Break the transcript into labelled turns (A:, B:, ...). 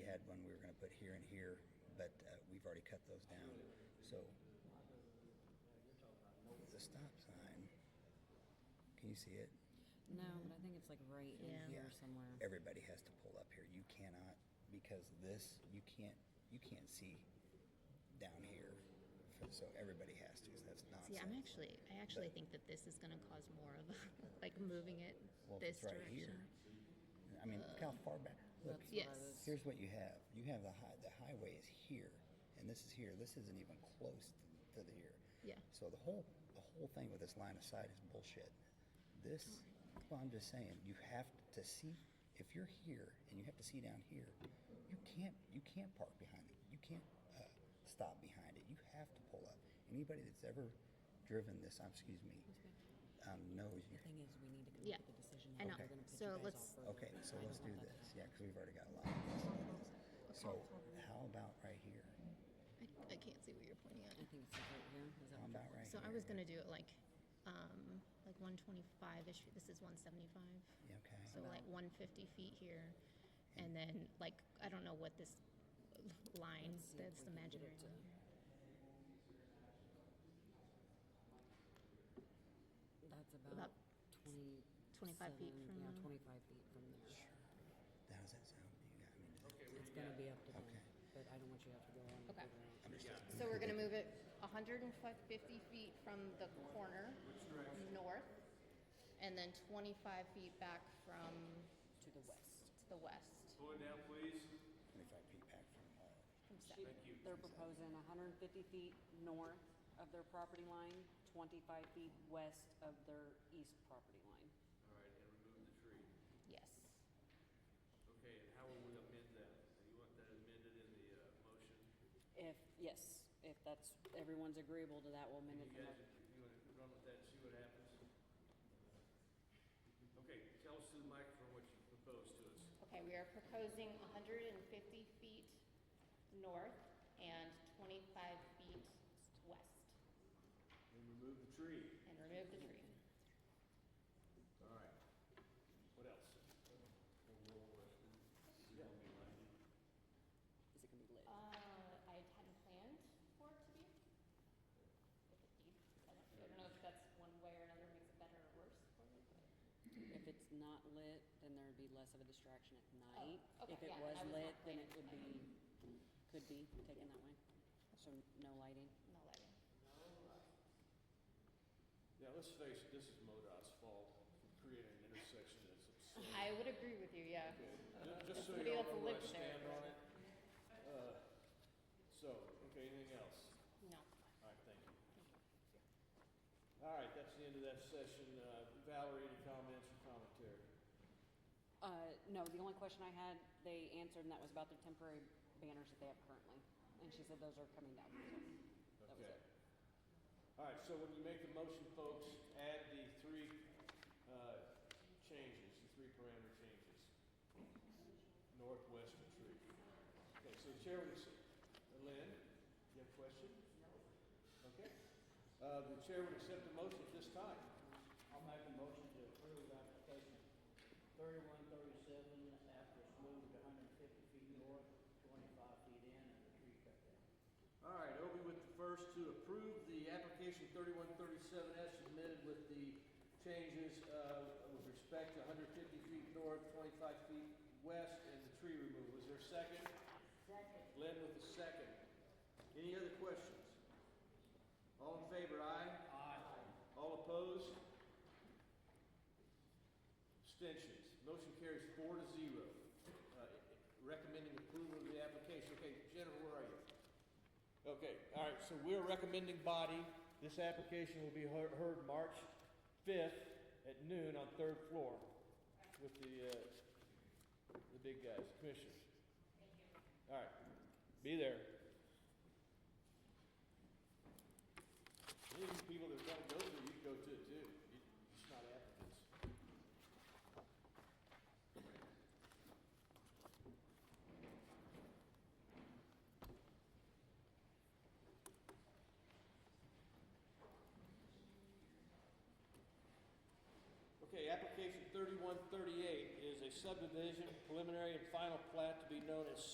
A: one we were going to put here and here, but uh, we've already cut those down. So the stop sign, can you see it?
B: No, but I think it's like right
C: Mm-hmm. Yeah.
B: in here somewhere.
A: Everybody has to pull up here. You cannot because this you can't you can't see down here. So everybody has to. So that's nonsense.
C: See, I'm actually, I actually think that this is going to cause more of, a- like, moving it
A: Well, if
C: this
A: it's right
C: direction.
A: here. I mean, look how far back. Look,
B: That's
C: Yes.
B: what it is.
A: here's what you have. You have the high, the highway is here, and this is here. This isn't even close to, to the here.
C: Yeah.
A: So the whole the whole thing with this line of sight is bullshit. This, well, I'm just saying, you have to see. If you're here and you have to see down here, you can't you can't park behind it. You can't uh, stop behind it. You have to pull up. Anybody that's ever driven this, um, excuse me, um, knows you
B: The thing is, we need to come
C: Yeah.
B: up with a decision.
C: I
B: how
C: know.
B: we're gonna put
C: So
B: you guys
C: let's-
B: off further.
A: Okay, so let's
B: I don't
A: do
B: want that to
A: this,
B: happen.
A: yeah, because we've already got a lot of this. lot of this. So how about right here?
C: I, I can't see what you're pointing at.
B: I think it's like right here. Is
A: How
B: that what you're-
A: about right
C: So
A: here?
C: I was going to do it like, um, like 125-ish, this is 175.
A: Yeah, Okay.
C: So like 150 feet here, and then like, I don't know what this line
B: see if
C: that's
B: we can get
C: imaginary.
B: it to-
C: line here.
B: That's about
C: About
B: 20.
C: 25 feet from
B: Yeah,
C: now.
B: 25 feet from there.
A: How does that sound? You got, I mean,
B: It's gonna be up to them,
A: Okay.
B: but I don't want you to have to go on. and
C: Okay.
B: figure out.
A: understood.
C: So we're gonna move it 150 feet from the corner north, and then 25 feet back from
B: To the west.
C: to the west.
D: Slow it down, please.
A: Twenty-five feet back from uh, the wall.
C: from
B: She-
C: second.
B: They're proposing 150 feet north of their property line, 25 feet west of their east property line.
D: All right, and remove the tree.
C: Yes.
D: Okay, and how will we amend that? Do you want that amended in the uh, motion?
B: If, yes, if that's, everyone's agreeable to that, we'll amend
D: You
B: it. the
D: guys,
B: mo-
D: if uh, you want to run with that and see what happens? Okay, tell us through the microphone what you propose to us.
C: Okay, we are proposing 150 feet north and 25 feet west,
D: And remove the tree.
C: and remove the tree.
D: All right. What else?
B: Is it gonna be lit?
C: Uh, I hadn't planned for it to be with the deed. I don't- I don't know if that's one way or another makes it better or worse for me, but.
B: If it's not lit, then there'd be less of a distraction at night.
C: Oh, okay,
B: If it
C: yeah,
B: was
C: I was
B: lit,
C: not
B: then
C: clear.
B: it would be, could be taken that way. So no lighting.
C: No lighting.
D: Yeah, let's face it, this is MoDOT's fault for creating an intersection that's absurd.
C: I would agree with you, yeah.
D: Ju- Just so
C: Somebody
D: you all
C: else
D: know where I
C: lived there.
D: stand on it. Uh, So, okay, anything else?
C: No.
D: All right, thank you. All right, that's the end of that session. Uh, Valerie, any comments or commentary?
B: Uh, no, the only question I had, they answered, and that was about their temporary banners that they have currently. And she said those are coming down, so that was
D: Okay.
B: it.
D: All right, so when you make the motion, folks, add the three uh, changes, the three parameter changes. Northwest and tree. Okay, so the chair would accept, Lynn, you have a question? Okay. Uh, The chair would accept the motion at this time.
E: I'll make a motion to approve application thirty-one thirty-seven after it's moved hundred and fifty feet north, twenty-five feet in, and the tree cut down.
D: All right, Obi with the first to approve the application 3137 as submitted with the changes uh, with respect to 150 feet north, 25 feet west, and the tree removal. Is there a second? Second. Glenn with the second. Any other questions? All in favor, aye? Aye. All opposed? Abstentions. Motion carries four to zero. Uh, Recommending approval of the application. Okay, Jennifer, where are you? Okay, all right, so we're recommending body. This application will be heard, heard March fifth at noon on third floor with the, uh, the big guys, commissioners. All right, be there. Any of you people that don't go to, you go to it too. You- You're just not applicants. Okay, application thirty-one thirty-eight is a subdivision preliminary and final plat to be known as